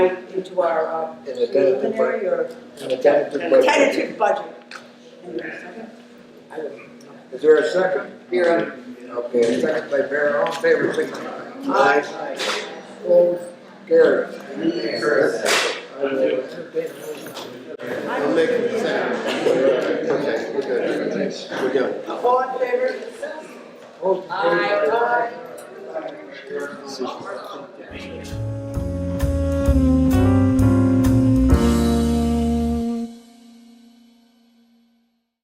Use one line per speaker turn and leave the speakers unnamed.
into our uh,
in the tentative, bu-
preliminary or
in the tentative budget.
tentative budget. Hang on a second.
Is there a second?
Vera.
Okay, a second by Vera, all in favor, signify.
Aye.
Opposed, carried. I will entertain a motion.
I'll make it second. Okay, we're good. We're good.
All in favor?
All in favor?
Aye.
Decision.